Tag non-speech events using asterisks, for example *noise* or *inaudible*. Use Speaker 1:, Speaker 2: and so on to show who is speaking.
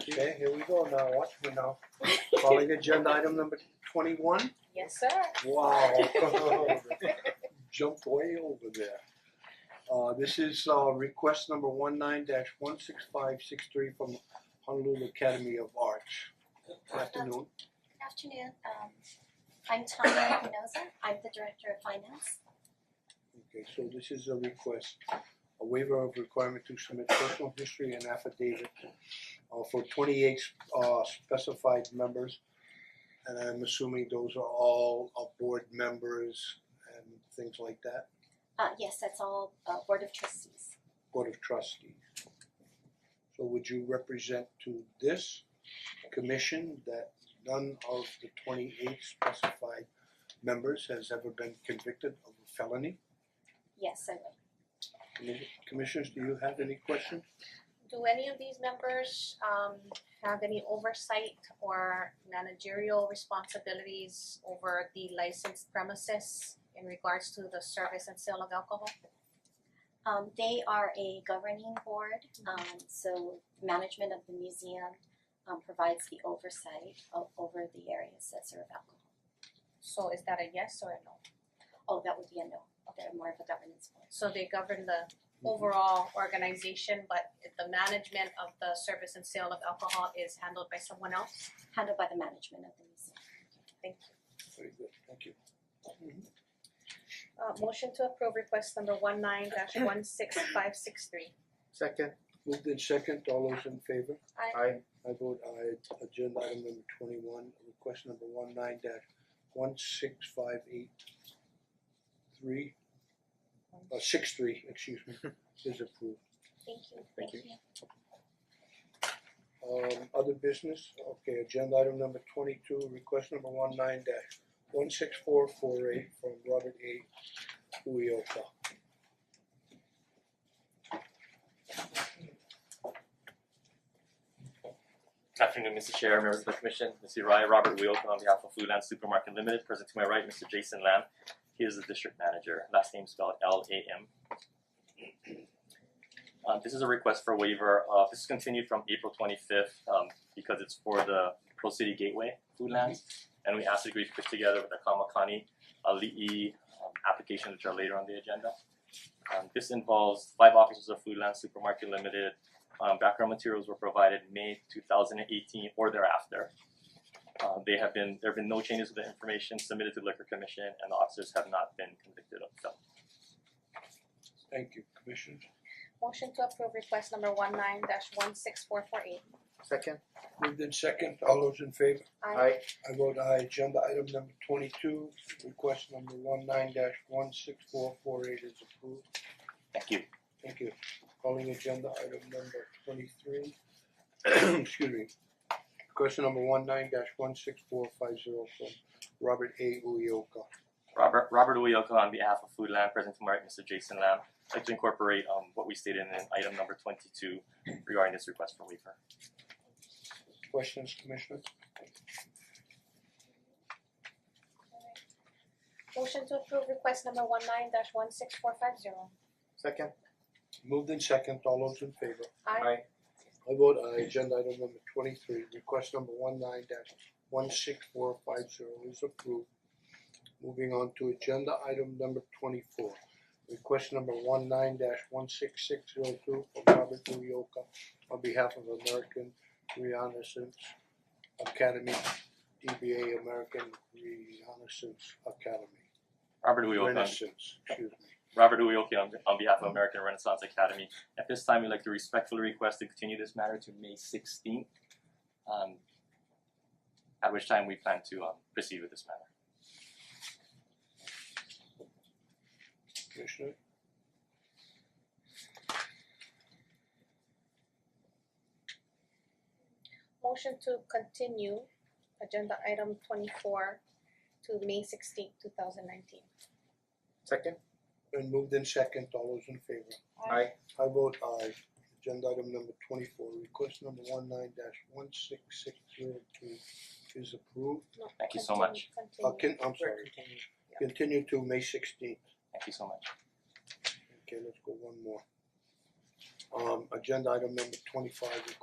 Speaker 1: Okay, here we go now, watch me now. Calling agenda item number twenty-one.
Speaker 2: Yes, sir.
Speaker 1: Wow. *laughs* Jumped way over there. Uh this is uh request number one nine dash one six five six three from Honolulu Academy of Arts. Good Afternoon,
Speaker 3: Good afternoon, um I'm Tanya Espinoza, I'm the Director of Finance.
Speaker 1: okay, so this is a request, a waiver of requirement to submit personal history and affidavit uh for twenty eight uh specified members. And I'm assuming those are all uh board members and things like that.
Speaker 3: Uh yes, that's all uh Board of Trustees.
Speaker 1: Board of Trustees. So would you represent to this commission that none of the twenty-eight specified members has ever been convicted of a felony?
Speaker 3: Yes, I would.
Speaker 1: Commis- Commissioners, do you have any questions?
Speaker 2: Do any of these members um have any oversight or managerial responsibilities over the licensed premises in regards to the service and sale of alcohol?
Speaker 3: Um they are a governing board, um so management of the museum um provides the oversight o- over the areas that serve alcohol.
Speaker 2: So is that a yes or a no?
Speaker 3: Oh, that would be a no, they're more of a governance board.
Speaker 2: So they govern the
Speaker 1: Mm-hmm.
Speaker 2: overall organization, but if the management of the service and sale of alcohol is handled by someone else?
Speaker 3: Handled by the management of the museum.
Speaker 2: Thank you.
Speaker 1: Very good, thank you.
Speaker 2: Uh motion to approve request number one nine dash one six five six three.
Speaker 4: Second,
Speaker 1: Moved in second, all those in favor?
Speaker 4: I
Speaker 1: I vote aye, agenda item number twenty-one, request number one nine dash one six five eight three, uh six three, excuse me, is approved.
Speaker 3: Thank you.
Speaker 4: Thank you.
Speaker 1: Um other business, okay, agenda item number twenty two, request number one nine dash one six four four eight from Robert A. Uyoka.
Speaker 5: Afternoon, Mr. Chair, members of the commission, Mr. Rai, Robert Wheelton on behalf of Foodland Supermarket Limited, present to my right, Mr. Jason Lam. He is the district manager, last name spelled L A M. Uh, this is a request for waiver, uh, this is continued from April twenty fifth, um, because it's for the Pro City Gateway Foodlands. And we asked the group to put together with the Kamakani, uh, Li'i, um, applications which are later on the agenda. Um, this involves five officers of Foodland Supermarket Limited, um, background materials were provided May two thousand and eighteen or thereafter. Uh, they have been, there have been no changes to the information submitted to the liquor commission and the officers have not been convicted of felony.
Speaker 1: Thank you, Commissioner.
Speaker 2: Motion to approve request number one nine dash one six four four eight.
Speaker 4: Second,
Speaker 1: Moved in second, all those in favor?
Speaker 4: I
Speaker 1: I vote aye, agenda item number twenty two, request number one nine dash one six four four eight is approved.
Speaker 5: Thank you.
Speaker 1: Thank you. Calling agenda item number twenty-three, *clears throat* excuse me. Question number one nine dash one six four five zero from Robert A. Uyoka.
Speaker 5: Robert Robert Uyoka on behalf of Foodland, present to my right, Mr. Jason Lam. I'd like to incorporate um what we stated in item number twenty two regarding this request for waiver.
Speaker 1: Questions, Commissioner?
Speaker 2: Motion to approve request number one nine dash one six four five zero.
Speaker 4: Second,
Speaker 1: Moved in second, all those in favor?
Speaker 2: Aye.
Speaker 4: I
Speaker 1: I vote aye, agenda item number twenty-three, request number one nine dash one six four five zero is approved. Moving on to agenda item number twenty-four, request number one nine dash one six six zero two from Robert Uyoka on behalf of American Renaissance Academy, DBA American Renaissance Academy.
Speaker 5: Robert Uyoka on
Speaker 1: Renaissance, excuse me.
Speaker 5: Robert Uyoki on, on behalf of American Renaissance Academy. At this time, we'd like to respectfully request to continue this matter to May sixteenth. Um, at which time we plan to um, proceed with this matter.
Speaker 1: Commissioner?
Speaker 2: Motion to continue agenda item twenty four to May sixteenth, two thousand nineteen.
Speaker 4: Second,
Speaker 1: Been moved in second, all those in favor?
Speaker 4: I
Speaker 1: I vote aye. Agenda item number twenty-four, request number one nine dash one six six zero two is approved.
Speaker 5: Thank you so much.
Speaker 1: Uh,
Speaker 2: Continue,
Speaker 1: can, I'm sorry, continue to May sixteenth.
Speaker 5: Thank you so much.
Speaker 1: Okay, let's go one more. Um, agenda item number twenty-five, request